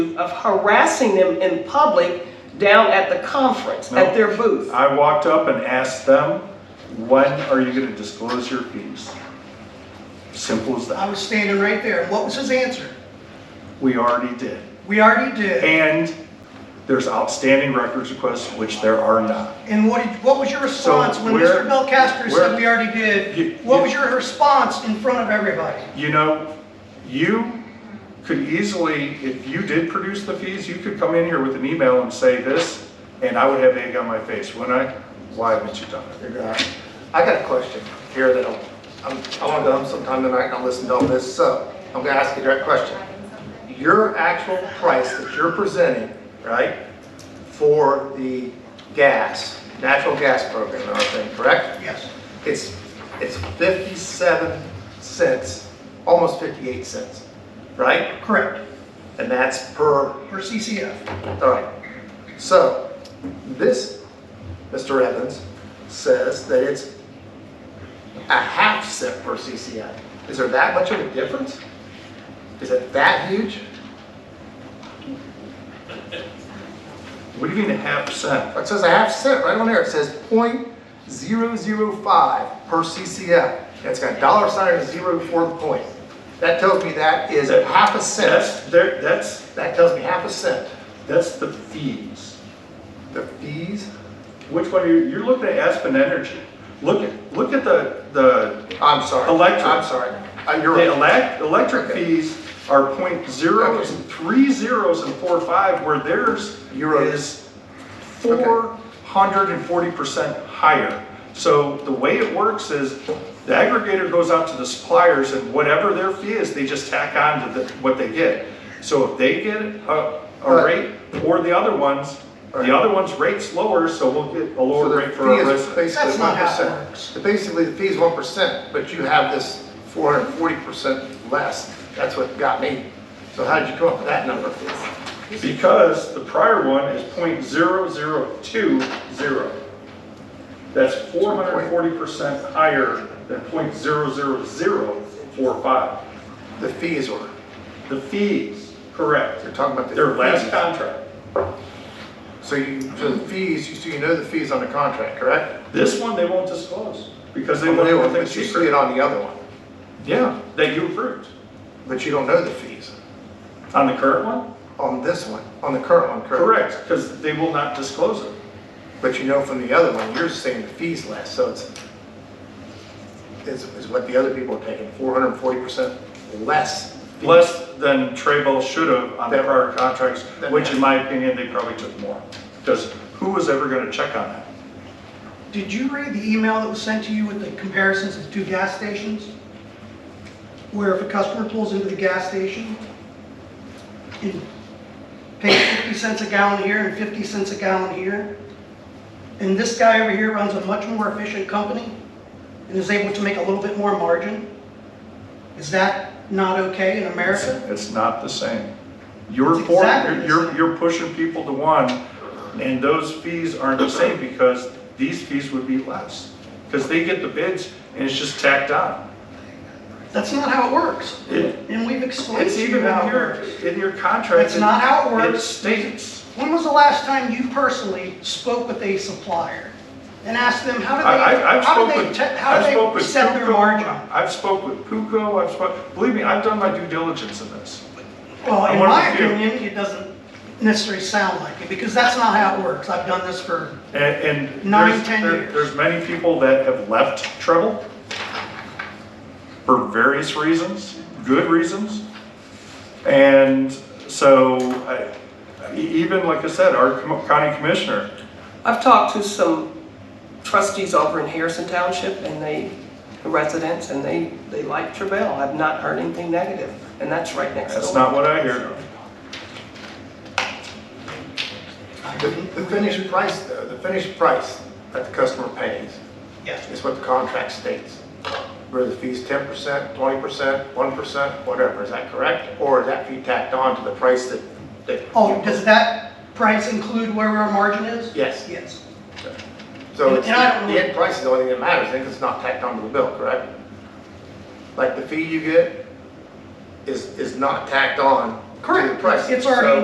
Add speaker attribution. Speaker 1: of harassing them in public down at the conference, at their booth.
Speaker 2: I walked up and asked them, when are you gonna disclose your fees? Simple as
Speaker 3: I
Speaker 2: that.
Speaker 3: was standing right there. What was his answer?
Speaker 2: We already did.
Speaker 3: We already did.
Speaker 2: And there's outstanding records requests, which there are not.
Speaker 3: And what, did- what was your response when
Speaker 2: where-
Speaker 3: Mr. Belcastro
Speaker 2: where-
Speaker 3: said we already
Speaker 2: You-
Speaker 3: did? What
Speaker 2: you-
Speaker 3: was your response in front of everybody?
Speaker 2: You know, you could easily, if you did produce the fees, you could come in here with an email and say this, and I would have egg on my face, wouldn't I? Why haven't you done it?
Speaker 4: I got a question here that I'm, I'm- I want to go home sometime tonight and I'll listen to all this, so I'm gonna ask you a direct question. Your actual price that you're presenting, right, for the gas, natural gas program, and everything, correct?
Speaker 3: Yes.
Speaker 4: It's, it's 57 cents, almost 58 cents, right?
Speaker 3: Correct.
Speaker 4: And that's per
Speaker 3: For CCF.
Speaker 4: all right, so this, Mr. Evans, says that it's a half cent per CCI. Is there that much of a difference? Is it that huge?
Speaker 2: What do you mean a half percent?
Speaker 4: It says a half cent right on there. It says point zero zero five per CCI. It's got a dollar sign and a zero for the point. That tells me that is a half a cent.
Speaker 2: That's, there- that's,
Speaker 4: That tells me half a cent.
Speaker 2: that's the fees.
Speaker 4: The fees,
Speaker 2: Which one are you, you're looking at Aspen Energy. Look at, look at the, the,
Speaker 4: I'm sorry.
Speaker 2: Electric.
Speaker 4: I'm sorry. Uh, You're
Speaker 2: the
Speaker 4: right.
Speaker 2: elect, electric
Speaker 4: Okay.
Speaker 2: fees are point zeros, three zeros and four five, where theirs
Speaker 4: Euros.
Speaker 2: is four hundred and forty percent higher. So the way it works is the aggregator goes out to the suppliers and whatever their fee is, they just tack on to the, what they get. So if they get a, a
Speaker 4: Right.
Speaker 2: rate or the other ones,
Speaker 4: Right.
Speaker 2: the other one's rate's lower, so we'll get a
Speaker 4: So
Speaker 2: lower
Speaker 4: the
Speaker 2: rate for our
Speaker 4: fee
Speaker 2: residents.
Speaker 3: That's
Speaker 4: is Basically
Speaker 3: not
Speaker 4: one
Speaker 3: how it works.
Speaker 4: percent. Basically, the fee is one percent, but you have this four hundred and forty percent less. That's what got me. So how did you come up with that number?
Speaker 2: Because the prior one is .0020. That's four hundred and forty percent higher than .00045.
Speaker 4: The fees were,
Speaker 2: The fees, correct.
Speaker 4: you're talking about the.
Speaker 2: Their last
Speaker 4: fees.
Speaker 2: contract.
Speaker 4: So you, so the fees, you- so you know the fees on the contract, correct?
Speaker 2: This one, they won't disclose because they
Speaker 4: On the
Speaker 2: want
Speaker 4: new one,
Speaker 2: everything
Speaker 4: But you see it
Speaker 2: secret.
Speaker 4: on the other one,
Speaker 2: Yeah, that you approved.
Speaker 4: but you don't know the fees
Speaker 2: On the current one?
Speaker 4: on this one, on the current one, correct?
Speaker 2: Correct, because they will not disclose it.
Speaker 4: But you know from the other one, you're saying the fee's less, so it's, is, is what the other people are taking, four hundred and forty percent less. fees.
Speaker 2: Less than Trayvell should have on the prior contracts,
Speaker 4: That-
Speaker 2: which in my opinion, they probably took more. Because who was ever gonna check on that?
Speaker 3: Did you read the email that was sent to you with the comparisons of two gas stations? Where if a customer pulls into the gas station and pays 50 cents a gallon here and 50 cents a gallon here, and this guy over here runs a much more efficient company and is able to make a little bit more margin, is that not okay in America?
Speaker 2: It's not the same. You're
Speaker 3: It's
Speaker 2: for,
Speaker 3: exactly the
Speaker 2: you're,
Speaker 3: same.
Speaker 2: you're pushing people to one, and those fees aren't the same because these fees would be less. Because they get the bids and it's just tacked on.
Speaker 3: That's not how it works.
Speaker 2: It-
Speaker 3: And we've explained
Speaker 2: It's
Speaker 3: to
Speaker 2: even
Speaker 3: you how
Speaker 2: in
Speaker 3: it
Speaker 2: your,
Speaker 3: works.
Speaker 2: in your contract.
Speaker 3: That's not how it works.
Speaker 2: It states,
Speaker 3: When was the last time you personally spoke with a supplier and asked them, how do
Speaker 2: I, I,
Speaker 3: they,
Speaker 2: I've
Speaker 3: how
Speaker 2: spoke
Speaker 3: do they,
Speaker 2: with,
Speaker 3: te- how
Speaker 2: I've
Speaker 3: do they
Speaker 2: spoke
Speaker 3: set
Speaker 2: with
Speaker 3: their
Speaker 2: Puco.
Speaker 3: margin?
Speaker 2: I've spoke with Puco, I've spoke, believe me, I've done my due diligence in this.
Speaker 3: Well,
Speaker 2: I'm
Speaker 3: in
Speaker 2: one of
Speaker 3: my
Speaker 2: the few.
Speaker 3: opinion, it doesn't necessarily sound like it, because that's not how it works. I've done this for,
Speaker 2: And, and
Speaker 3: Nine,
Speaker 2: there's-
Speaker 3: ten
Speaker 2: there-
Speaker 3: years.
Speaker 2: There's many people that have left Treble for various reasons, good reasons. And so, I- e- even like I said, our com- county commissioner,
Speaker 1: I've talked to some trustees over in Harrison Township and they, residents, and they, they like Trebell. I've not heard anything negative, and that's right next door.
Speaker 2: that's not what I hear.
Speaker 4: The the finished price, though, the finished price that the customer pays
Speaker 3: yes,
Speaker 4: is what the contract states. Where the fee's ten percent, twenty percent, one percent, whatever, is that correct? Or is that fee tacked on to the price that, that?
Speaker 3: oh, does that price include where our margin is?
Speaker 4: Yes.
Speaker 3: Yes.
Speaker 4: So it's,
Speaker 3: And I don't
Speaker 4: the end price is the only thing that matters, then, 'cause it's not tacked onto the bill, correct? Like, the fee you get is, is not tacked on to the
Speaker 3: Correct.
Speaker 4: price.
Speaker 3: It's already
Speaker 4: So-